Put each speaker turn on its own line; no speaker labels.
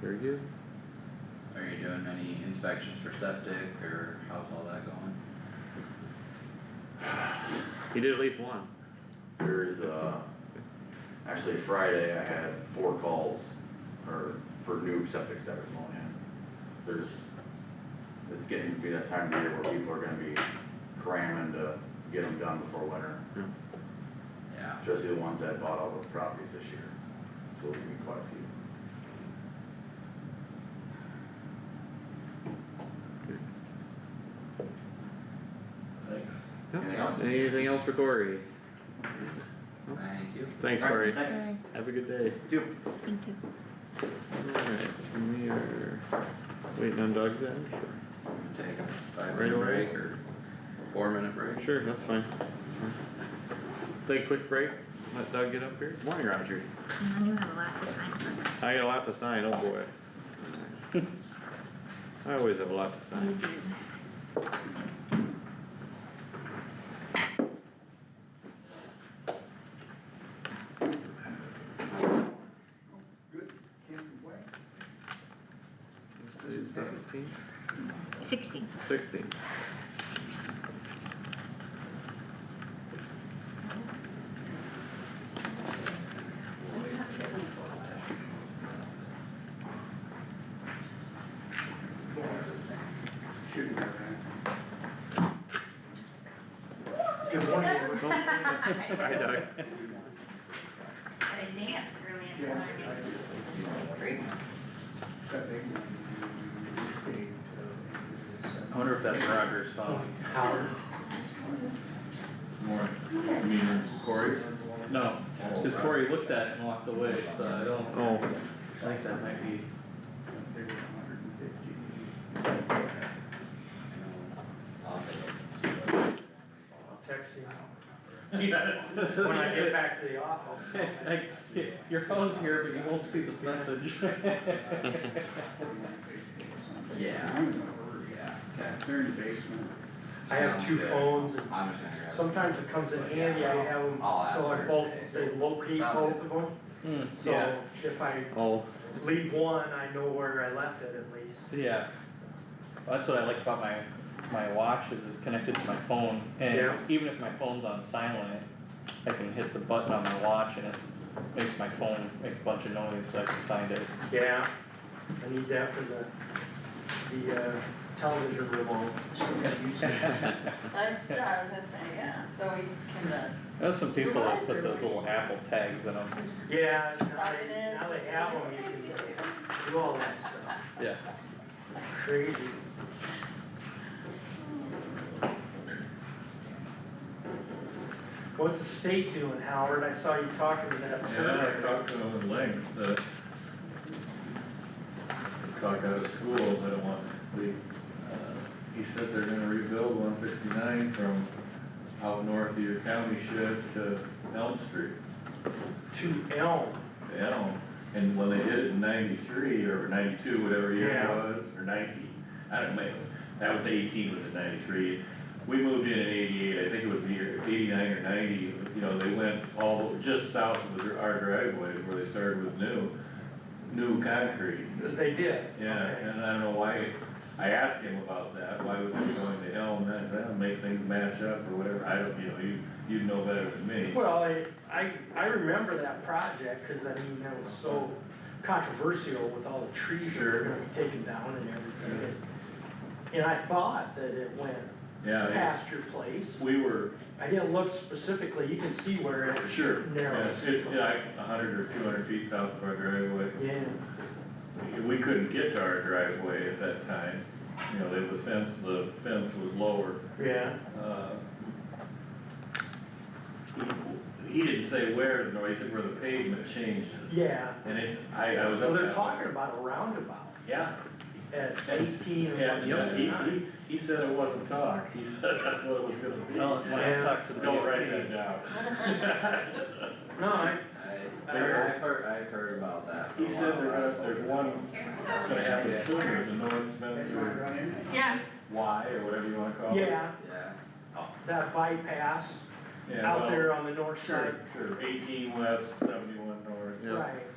Very good.
Are you doing any inspections for septic or how's all that going?
You did at least one.
There's, uh, actually Friday I had four calls for, for new septic that are going in. There's, it's getting to be that time of year where people are gonna be cramming to get them done before winter,
Yeah,
especially the ones that bought all those properties this year. So it's gonna be quite a few. Thanks. Anything else?
Anything else for Corey?
thank you.
Thanks,
All right,
Corey.
Thanks.
Have a good day.
Do.
Thank you.
Alright, we are waiting on Doug then?
Wanna Take a five
Right
minute
away.
break or four minute break?
Sure, that's fine. Take a quick break, let Doug get up here. Morning, Roger.
And then you have a lot to sign for.
I got a lot to sign, oh boy. I always have a lot to
You
sign.
do.
Let's do 17,
Sixteen.
16.
Good morning. everyone.
Hi, Doug.
I think that's really important.
I wonder if that's Roger's phone. Howard. More, I mean, Corey?
No, cause Corey looked at it and walked away, so I don't,
Oh,
I think that might be,
I'll text you. When I get back to the office.
like, your phone's here, but you won't see this message.
Yeah, yeah, okay.
They're in the basement.
I have two phones and
I'm just gonna grab.
sometimes it comes in handy, I have them,
I'll ask
so I
her
both, they
today.
locate both of them.
Hmm,
So
yeah,
if I
oh,
leave one, I know where I left it at least.
yeah. Well, That's what I like about my, my watch is it's connected to my phone, and
Yeah.
even if my phone's on silent, I can hit the button on my watch and it makes my phone make a bunch of noise, so I can find it.
Yeah, I need that for the, the, uh, television remote.
I was, I was gonna say, yeah, so we can, uh,
There's some people that put those little Apple tags in them,
Yeah, now
start it
they,
in.
now they have them, you can do all that stuff,
yeah.
crazy. What's the state doing, Howard? I saw you talking to that
Yeah, I
survey.
talked to them at length, the. Talk out of school, they don't want, they, uh, he said they're gonna rebuild one sixty-nine from out north of your county shed to Elm Street.
To Elm,
Elm, and when they did it in ninety-three or ninety-two, whatever year it
Yeah.
was, or ninety, I don't know, that was eighteen, was in ninety-three. We moved in in eighty-eight, I think it was the year eighty-nine or ninety, you know, they went all, just south of the- our driveway where they started with new, new concrete.
they did.
Yeah,
Okay.
and I don't know why, I asked him about that, why would they be going to Elm, that, that'll make things match up or whatever, I don't, you know, you, you'd know better than me.
Well, I, I, I remember that project, cause I mean, that was so controversial with all the trees that were
Sure.
gonna be taken down and everything. And I thought that it went
Yeah, they-
past your place.
we were,
I didn't look specifically, you can see where it,
Sure,
Narrow.
yeah, it's like a hundred or two hundred feet south of our driveway.
yeah,
We couldn't get to our driveway at that time, you know, they- the fence, the fence was lower.
yeah,
Uh, He didn't say where, no, he said where the pavement changes.
yeah.
And it's, I, I was. up
Well, they're
that-
talking about a roundabout
Yeah,
at eighteen and one
yeah, yeah, he,
seventy-nine.
he, he said it wasn't talk, he said that's what it was gonna be.
Well, when I
Yeah.
talked to the
Don't
DOT,
write that down.
No, I,
I, I've heard, I've heard about that. for a
He said
while.
there was, there's one, that's gonna happen sooner, the North
That's why I
Spencer
run in.
Yeah.
Y or whatever you wanna call it.
yeah,
Yeah,
that bypass
Yeah,
out
well,
there on the north side,
Sure, sure, eighteen west, seventy-one north,
yeah.
right,